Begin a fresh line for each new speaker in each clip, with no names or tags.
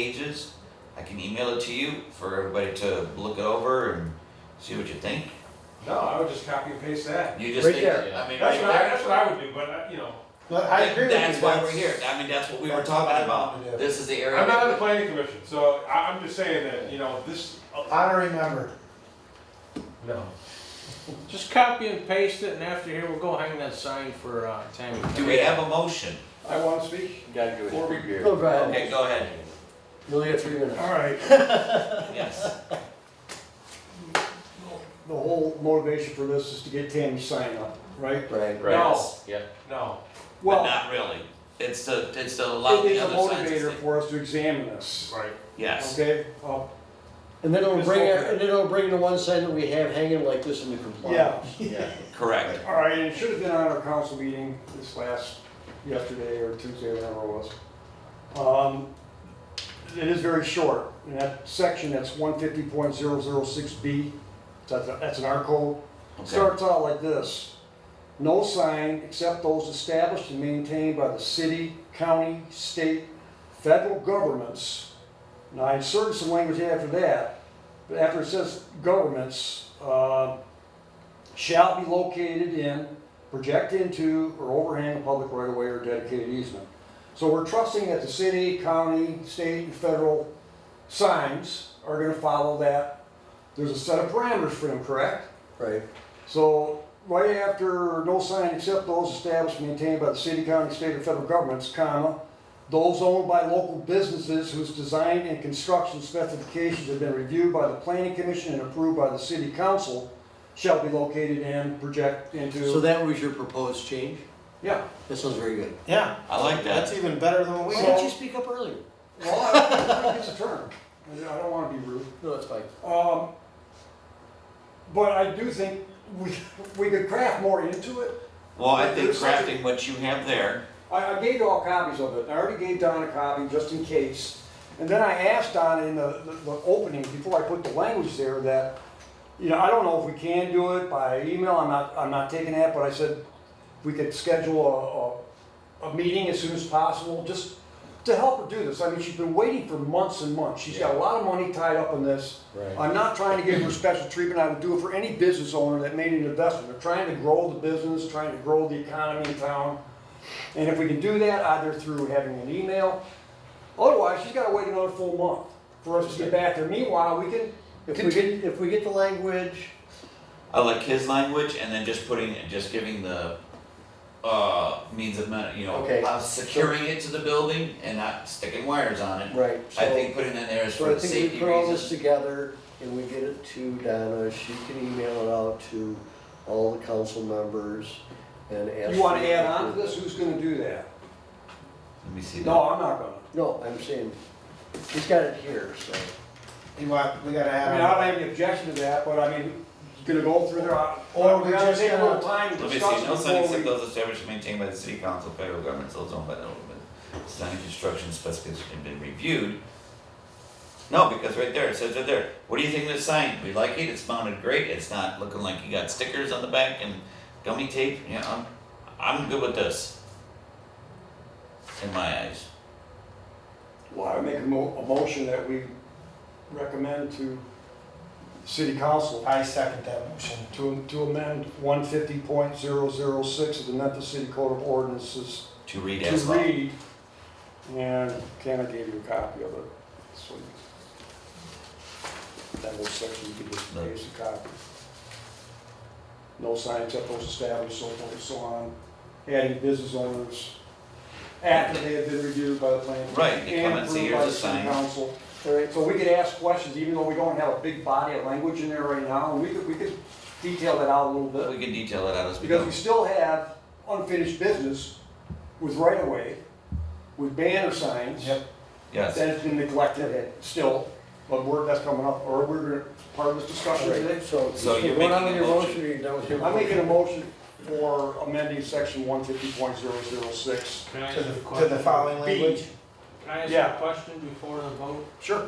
pages. I can email it to you for everybody to look it over and see what you think.
No, I would just copy and paste that.
You just
Right
think,
there.
I mean,
That's
right
what I,
there.
that's what I would do, but, I- you know,
Well, I agree with you.
That's why we're here. I mean, that's what we were
That's what I
talking
wanted to
about.
do.
This is the area.
I'm not on the planning commission, so I, I'm just saying that, you know, this. uh,
Honorary member.
No.
Just copy and paste it, and after here, we'll go hang that sign for uh, Tammy.
Do we have a motion?
I want to speak.
Gotta do it
Four
every
weeks.
year.
Go right
Okay, go ahead.
You only got three minutes.
All right.
Yes.
The whole motivation for this is to get Tammy's sign up, right?
Right.
No,
Yeah.
no.
But
Well,
not really. It's to, it's to allow
it
the
is a
other signs to
motivator
stay.
for us to examine this,
Right. Oh,
Yes.
okay? Uh,
And then it'll
Just
bring,
open
our-
it.
and then it'll bring the one sign that we have hanging like this into
Yeah,
compliance.
Yeah.
Correct.
all right, and it should have been on our council meeting this last, yesterday or Tuesday, whatever it was. Um, It is very short, and that section, that's 150.006B, that's that's an R code.
Okay.
starts out like this. No sign except those established and maintained by the city, county, state, federal governments. Now, I inserted some language after that, but after it says governments, uh, shall be located in, project into, or overhang a public right of way or dedicated easement. So we're trusting that the city, county, state, and federal signs are gonna follow that. There's a set of parameters for them, correct?
Right.
So right after no sign except those established and maintained by the city, county, state, or federal governments, comma, those owned by local businesses whose design and construction specifications have been reviewed by the planning commission and approved by the city council shall be located and project
So
into.
that was your proposed change?
Yeah.
This one's very good.
Yeah,
I like that.
even better than what
Why
we
didn't you speak up earlier?
Well, I, I- it's a term. I don't want to be rude.
No, that's fine.
Um, but I do think we, we could craft more into it.
Well, I think
There's such a-
crafting what you have there,
I, I gave you all copies of it, I already gave Don a copy just in case. And then I asked Don in the, the- the opening, before I put the language there, that, you know, I don't know if we can do it by email, I'm not, I'm not taking that, but I said, we could schedule a, a, a meeting as soon as possible, just to help her do this. I mean, she's been waiting for months and months, she's got a lot of money tied up in this.
Right.
I'm not trying to give her special treatment, I would do it for any business owner that made an investment, they're trying to grow the business, trying to grow the economy in town. And if we can do that, either through having an email, otherwise, she's gotta wait another full month for us to get back there. Meanwhile, we can,
If we get, if we get the language,
I like his language and then just putting, just giving the, uh, means of, ma- you know,
Okay.
uh, securing it to the building and not sticking wires on it.
right.
I
so-
think putting that there is
So
for
I
the
think
safety
we put all this
reasons.
together and we get it to Donna, she can email it out to all the council members and ask.
you wanna add
them
on to this, who's gonna do that?
Let me see that.
No, I'm not gonna.
No, I'm saying, she's got it here, so.
You want, we gotta
I
add
mean, I don't
on.
have any objection to that, but I mean, gonna go through there, I-
Or we
we gotta
just
take a little
gotta-
time
Let
to
me see,
discuss
no sign
before
except
we.
those established and maintained by the city council, federal government, those owned by the local business. Design and construction specifications have been reviewed. No, because right there, it says right there, what do you think of this sign? We like it, it's mounted great, it's not looking like you got stickers on the back and gummy tape, you know, I'm, I'm good with this. In my eyes.
Well, I make a mo- a motion that we recommend to city council
I second that motion.
To, to amend one fifty point zero zero six of the Memphis City Code of Ordinances
To read
to
as well.
read, and Ken, I gave you a copy of it, so you, that whole section, you can just
No.
use a copy. No sign except those established, so forth and so on, adding business owners, after they have been reviewed by the planning. commission
Right, they come and say,
approved
"Here's
by
a
the city
sign."
Council.
All right,
So we could ask questions, even though we don't have a big body of language in there right now, and we could, we could detail that out a little
But
bit.
we can detail it out as we
Because
go.
we still have unfinished business with right-of-way, with banner signs.
Yep.
Yes.
That's been neglected still, but we're, that's coming up, or we're gonna, part of this discussion
all
today.
right, so.
So you're
What
making
on
a
your
motion.
motion, are you done with your?
I'm
motion?
making a motion for amending section one fifty point zero zero six.
Can I ask
To
a
the, to
question?
the
B.
following language.
Can I ask
Yeah.
a question before the vote?
Sure.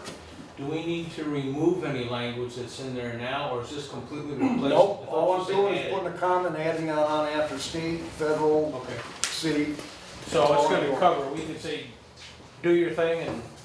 Do we need to remove any language that's in there now, or is this completely replaced?
Nope,
I thought
all
you
I'm
said
doing
add
is
it.
putting a comment, adding on on after state, federal,
Okay,
city.
so it's gonna
Or-
cover, we can say, do your thing and